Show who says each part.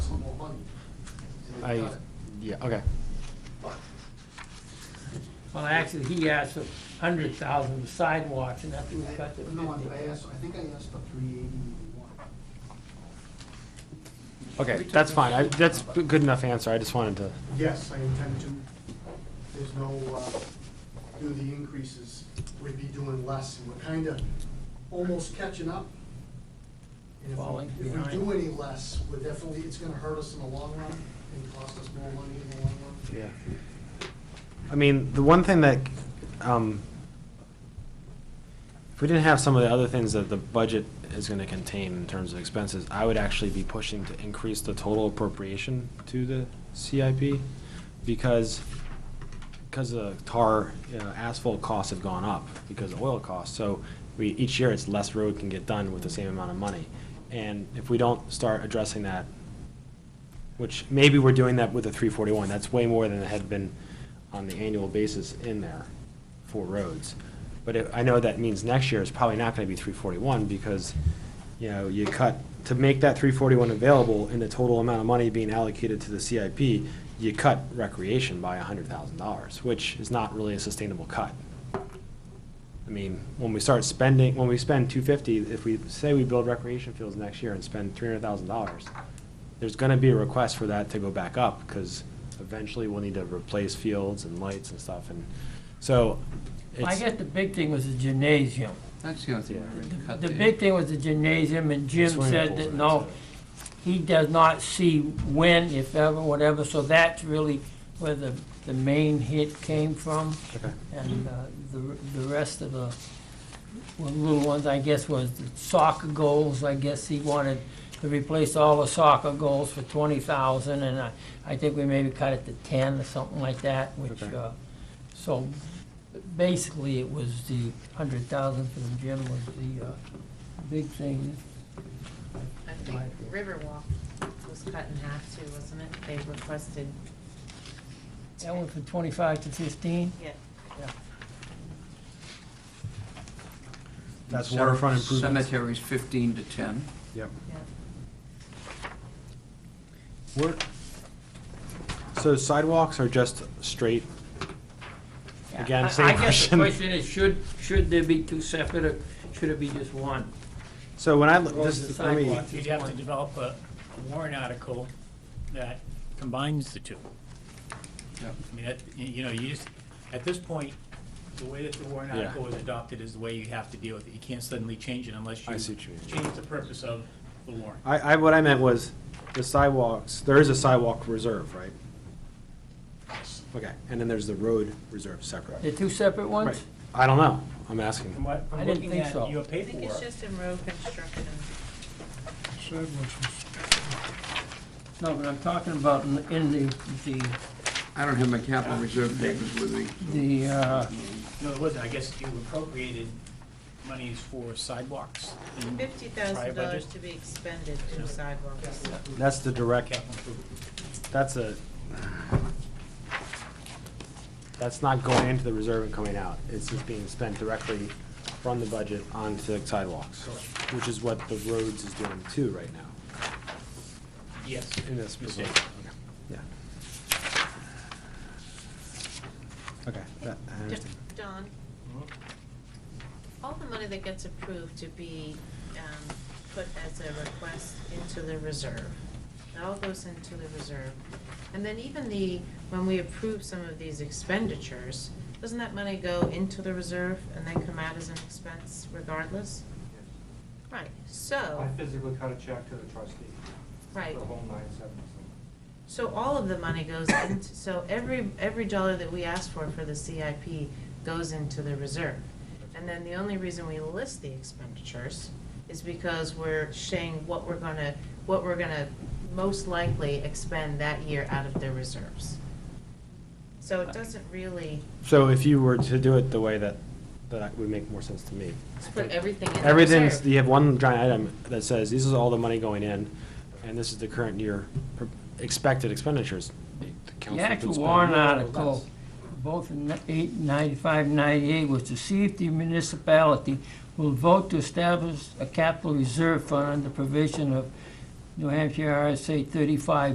Speaker 1: done. And they've
Speaker 2: I,
Speaker 1: done it.
Speaker 2: yeah, okay.
Speaker 3: Well, actually, he asked for hundred thousand sidewalks, and after we cut to
Speaker 1: No, I
Speaker 3: fifty.
Speaker 1: asked, I think I asked for three eighty-one.
Speaker 2: Okay, that's fine. I, that's a good enough answer. I just wanted to,
Speaker 4: Yes, I intend to. There's no, uh, due to the increases, we'd be doing less, and we're kind of almost catching up. And if we-
Speaker 3: Falling
Speaker 4: If we
Speaker 3: behind.
Speaker 4: do any less, we're definitely, it's gonna hurt us in the long run and cost us more money in the long run.
Speaker 2: yeah. I mean, the one thing that, um, if we didn't have some of the other things that the budget is gonna contain in terms of expenses, I would actually be pushing to increase the total appropriation to the CIP because, because the tar, you know, asphalt costs have gone up because of oil costs. So we, each year, it's less road can get done with the same amount of money. And if we don't start addressing that which maybe we're doing that with the three forty-one, that's way more than it had been on the annual basis in there for roads. But it- I know that means next year is probably not gonna be three forty-one, because, you know, you cut, to make that three forty-one available in the total amount of money being allocated to the CIP, you cut recreation by hundred thousand dollars, which is not really a sustainable cut. I mean, when we start spending, when we spend two fifty, if we, say we build recreation fields next year and spend three hundred thousand dollars, there's gonna be a request for that to go back up, because eventually we'll need to replace fields and lights and stuff, and, so,
Speaker 3: I
Speaker 2: it's,
Speaker 3: guess the big thing was the gymnasium.
Speaker 5: That's the only thing
Speaker 2: Yeah.
Speaker 5: we already cut
Speaker 3: The
Speaker 5: there.
Speaker 3: big thing was the gymnasium, and Jim
Speaker 2: Swimming
Speaker 3: said
Speaker 2: pools
Speaker 3: that
Speaker 2: and
Speaker 3: no,
Speaker 2: that's
Speaker 3: he does not see when, if ever, whatever, so that's really where the, the main hit came from.
Speaker 2: Okay.
Speaker 3: And uh, the, the rest of the, well, little ones, I guess, was the soccer goals, I guess he wanted to replace all the soccer goals for twenty thousand, and I, I think we maybe cut it to ten or something like that, which,
Speaker 2: Okay.
Speaker 3: uh, so basically it was the hundred thousand for the gym was the, uh, big thing.
Speaker 6: I think Riverwalk was cut in half too, wasn't it? They requested.
Speaker 3: That went from twenty-five to fifteen?
Speaker 6: Yeah.
Speaker 2: that's
Speaker 5: Cem-
Speaker 2: waterfront improvements.
Speaker 5: Cemeteries fifteen to ten.
Speaker 2: Yep.
Speaker 6: Yeah.
Speaker 2: We're- So sidewalks are just straight, Again,
Speaker 3: I-
Speaker 2: same
Speaker 3: I guess the
Speaker 2: question.
Speaker 3: question is, should, should there be two separate, or should it be just one?
Speaker 2: so when I, look-
Speaker 3: Roads
Speaker 2: this,
Speaker 3: and
Speaker 2: let me,
Speaker 3: sidewalks.
Speaker 7: You'd have to develop a a warrant article that combines the two.
Speaker 5: Yep.
Speaker 7: I mean, that, you- you know, you just, at this point, the way that the warrant
Speaker 2: Yeah.
Speaker 7: article was adopted is the way you have to deal with it. You can't suddenly change it unless you
Speaker 2: I see what you mean.
Speaker 7: change the purpose of the warrant.
Speaker 2: I, I, what I meant was the sidewalks, there is a sidewalk reserve, right? Okay, and then there's the road reserve separate.
Speaker 3: The two separate ones?
Speaker 2: Right. I don't know, I'm asking.
Speaker 7: From what
Speaker 3: I
Speaker 7: I'm
Speaker 3: didn't
Speaker 7: looking
Speaker 3: think so.
Speaker 7: at your
Speaker 6: I think it's
Speaker 7: paperwork, Mm-hmm.
Speaker 6: just in road construction.
Speaker 3: No, but I'm talking about in- in the, the,
Speaker 5: I don't have my capital reserve papers with me.
Speaker 3: the, uh,
Speaker 7: no, it wasn't. I guess you appropriated monies for sidewalks in
Speaker 6: Fifty
Speaker 7: prior
Speaker 6: thousand dollars
Speaker 7: budget.
Speaker 6: to be expended to sidewalks.
Speaker 2: That's the direct,
Speaker 7: Capital improvement.
Speaker 2: that's a, that's not going into the reserve and coming out. It's just being spent directly from the budget onto sidewalks, which is what the roads is doing too right now,
Speaker 7: Yes.
Speaker 2: in this proposal.
Speaker 7: Mistake.
Speaker 2: Okay, Yeah. Okay, that, I
Speaker 6: D-
Speaker 2: understand.
Speaker 6: Don,
Speaker 7: Mm-hmm.
Speaker 6: all the money that gets approved to be um, put as a request into the reserve, it all goes into the reserve. And then even the, when we approve some of these expenditures, doesn't that money go into the reserve and then come out as an expense regardless? Right, so,
Speaker 8: I physically cut a check to the trustee.
Speaker 6: right,
Speaker 8: The whole nine seventy.
Speaker 6: so all of the money goes into, so every, every dollar that we ask for for the CIP goes into the reserve. And then the only reason we list the expenditures is because we're saying what we're gonna, what we're gonna most likely expend that year out of the reserves. So it doesn't really
Speaker 2: So if you were to do it the way that, that would make more sense to me.
Speaker 6: put everything in the reserve.
Speaker 2: Everything's, you have one giant item that says, this is all the money going in, and this is the current year per- expected expenditures.
Speaker 3: the actual warrant article, both in ni- eight- 95, 98, was to see if the municipality will vote to establish a capital reserve fund under provision of New Hampshire RSA 35